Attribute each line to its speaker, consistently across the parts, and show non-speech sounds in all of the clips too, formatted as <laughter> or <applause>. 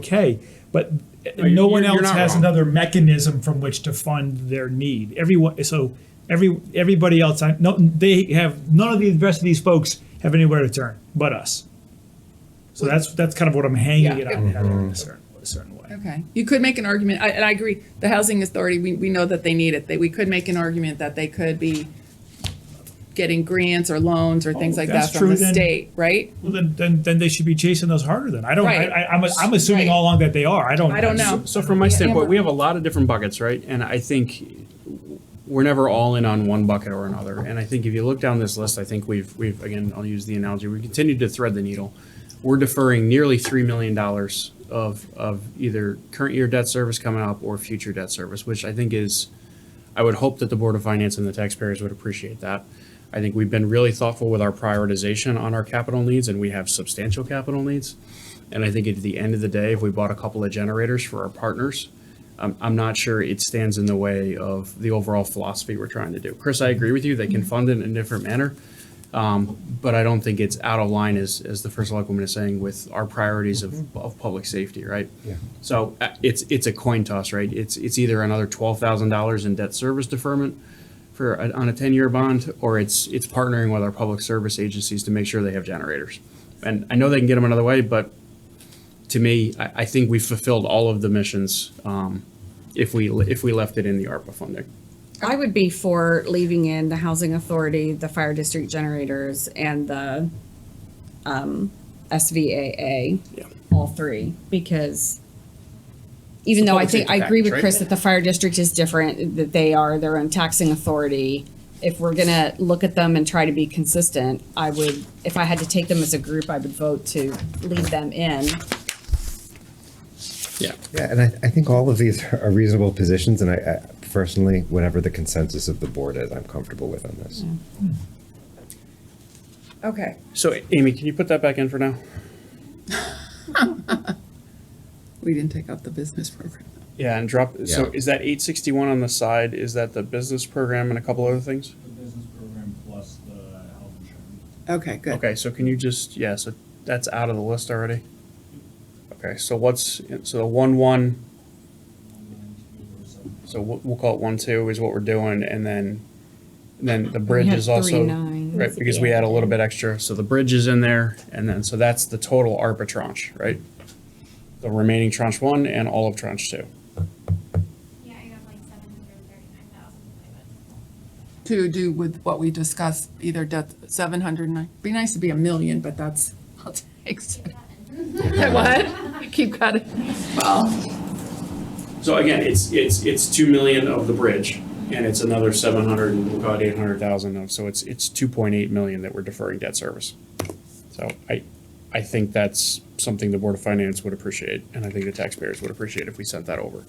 Speaker 1: okay, but
Speaker 2: you-
Speaker 1: no one
Speaker 2: you're- you're
Speaker 1: else
Speaker 2: not
Speaker 1: has
Speaker 2: wrong.
Speaker 1: another mechanism from which to fund their need. Everyone, so every, everybody else, I, no, they have, none of the rest of these folks have anywhere to turn but us. So that's, that's kind of what I'm hanging it
Speaker 3: Yeah.
Speaker 1: on, having a certain,
Speaker 2: Mm-hmm.
Speaker 1: a certain way.
Speaker 3: Okay, you could make an argument, I- and I agree, the housing authority, we, we know that they need it, that we could make an argument that they could be getting grants or loans or things
Speaker 1: Oh,
Speaker 3: like
Speaker 1: that's
Speaker 3: that from the
Speaker 1: true, then.
Speaker 3: state, right?
Speaker 1: Well, then, then, then they should be chasing those harder then. I don't, I,
Speaker 3: Right.
Speaker 1: I, I'm, I'm assuming
Speaker 3: Right.
Speaker 1: all along that they are. I don't.
Speaker 3: I don't know.
Speaker 2: So from my standpoint, we have a lot of different buckets, right? And I think we're never all in on one bucket or another. And I think if you look down this list, I think we've, we've, again, I'll use the analogy, we continue to thread the needle. We're deferring nearly $3 million of, of either current year debt service coming up or future debt service, which I think is, I would hope that the Board of Finance and the taxpayers would appreciate that. I think we've been really thoughtful with our prioritization on our capital needs, and we have substantial capital needs. And I think at the end of the day, if we bought a couple of generators for our partners, I'm, I'm not sure it stands in the way of the overall philosophy we're trying to do. Chris, I agree with you, they can fund it in a different manner. Um, but I don't think it's out of line, as, as the first selectwoman is saying, with our priorities of, of public safety, right?
Speaker 4: Yeah.
Speaker 2: So uh, it's, it's a coin toss, right? It's, it's either another twelve thousand dollars in debt service deferment for, a- on a ten-year bond, or it's, it's partnering with our public service agencies to make sure they have generators. And I know they can get them another way, but to me, I, I think we fulfilled all of the missions, um, if we, if we left it in the ARPA funding.
Speaker 5: I would be for leaving in the housing authority, the fire district generators, and the um, SVAA. All three, because even though I
Speaker 2: public
Speaker 5: think, I
Speaker 2: safety
Speaker 5: agree with
Speaker 2: package,
Speaker 5: Chris
Speaker 2: right?
Speaker 5: that the fire district is different, that they are their own taxing authority. If we're gonna look at them and try to be consistent, I would, if I had to take them as a group, I would vote to leave them in.
Speaker 2: Yeah.
Speaker 4: Yeah, and I, I think all of these <laughs> are reasonable positions, and I, I personally, whatever the consensus of the board is, I'm comfortable with on this.
Speaker 3: Okay.
Speaker 2: So Amy, can you put that back in for now?
Speaker 3: We didn't take out the business program.
Speaker 2: Yeah, and drop, so
Speaker 4: Yeah.
Speaker 2: is that eight sixty-one on the side? Is that the business program and a couple other things?
Speaker 6: the business program plus the health insurance.
Speaker 3: Okay, good.
Speaker 2: Okay, so can you just, yeah, so that's out of the list already? Okay, so what's, so the one, one,
Speaker 6: One, nine, two, or seven.
Speaker 2: so we'll, we'll call it one, two is what we're doing, and then, then the bridge
Speaker 5: had
Speaker 2: is also.
Speaker 5: three nines
Speaker 2: Right,
Speaker 5: at
Speaker 2: because
Speaker 5: the
Speaker 2: we had a
Speaker 5: end.
Speaker 2: little bit extra, so the bridge is in there, and then, so that's the total ARPA tranche, right? The remaining tranche one and all of tranche two.
Speaker 7: Yeah, I got like seven hundred thirty-nine thousand in my budget.
Speaker 3: To do with what we discussed, either debt, seven hundred nine, be nice to be a million, but that's, I'll take. seven. What? You Keep cutting. Well,
Speaker 2: So again, it's, it's, it's two million of the bridge, and it's another seven hundred, we'll call it eight hundred thousand of, so it's, it's two point eight million that we're deferring debt service. So I, I think that's something the Board of Finance would appreciate, and I think the taxpayers would appreciate if we sent that over.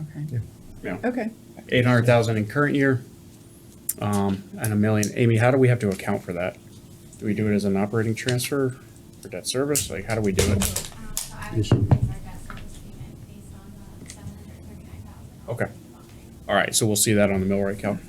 Speaker 3: okay.
Speaker 2: Yeah.
Speaker 3: Okay.
Speaker 2: Eight hundred thousand in current year, um, and a million. Amy, how do we have to account for that? Do we do it as an operating transfer for debt service? Like, how do we do it?
Speaker 7: Um, so I would increase our debt service payment based on the seven hundred thirty-nine thousand.
Speaker 2: Okay. All right, so we'll see that on the mill rate count.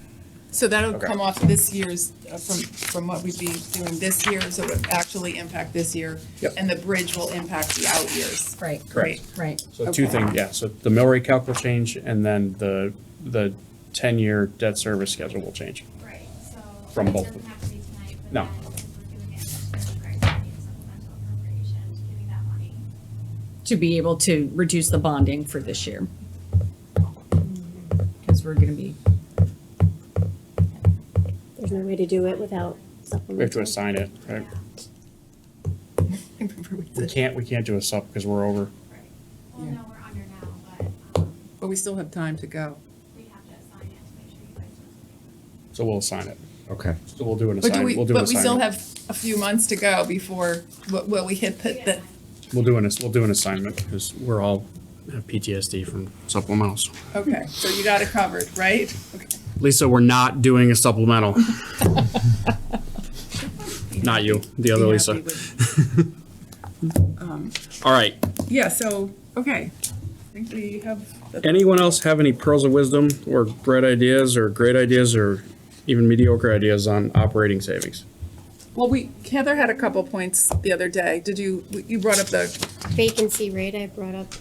Speaker 3: So that'll
Speaker 2: Okay.
Speaker 3: come off this year's, uh, from, from what we'd be doing this year, so it would actually impact this year.
Speaker 2: Yep.
Speaker 3: And the bridge will impact the out years.
Speaker 5: Right,
Speaker 2: Correct.
Speaker 5: right.
Speaker 2: So two
Speaker 3: Okay.
Speaker 2: things, yeah, so the mill rate calc will change, and then the, the ten-year debt service schedule will change.
Speaker 7: Right, so.
Speaker 2: From both of
Speaker 7: It doesn't have to be tonight, but
Speaker 2: No.
Speaker 7: then since we're doing it, there's a criteria of supplemental appropriation to giving that money.
Speaker 5: to be able to reduce the bonding for this year. Because we're going to be,
Speaker 8: There's no way to do it without
Speaker 2: We have to
Speaker 8: supplemental.
Speaker 2: assign it, right? We
Speaker 3: But
Speaker 2: can't, we can't do a sub because we're over.
Speaker 7: Right. Well,
Speaker 3: Yeah.
Speaker 7: no, we're under now, but,
Speaker 3: <laughs>
Speaker 7: um,
Speaker 3: we still have time to go.
Speaker 7: we have to assign it to make sure you guys don't.
Speaker 2: So we'll assign it.
Speaker 4: Okay.
Speaker 2: So we'll do an
Speaker 3: But do
Speaker 2: assign,
Speaker 3: we,
Speaker 2: we'll do an
Speaker 3: but we still
Speaker 2: assignment.
Speaker 3: have a few months to go before, will- will we hit the, the-
Speaker 2: We'll do an, we'll do an assignment because we're all have PTSD from supplementals.
Speaker 3: okay, so you got it covered, right? Okay.
Speaker 2: Lisa, we're not doing a supplemental.
Speaker 3: <laughs>
Speaker 2: Not you, the other
Speaker 3: Be
Speaker 2: Lisa.
Speaker 3: happy with-
Speaker 2: All right.
Speaker 3: Yeah, so, okay. I think we have, the-
Speaker 2: Anyone else have any pearls of wisdom or bright ideas or great ideas or even mediocre ideas on operating savings?
Speaker 3: Well, we, Heather had a couple points the other day. Did you, you brought up the
Speaker 8: Vacancy rate I brought up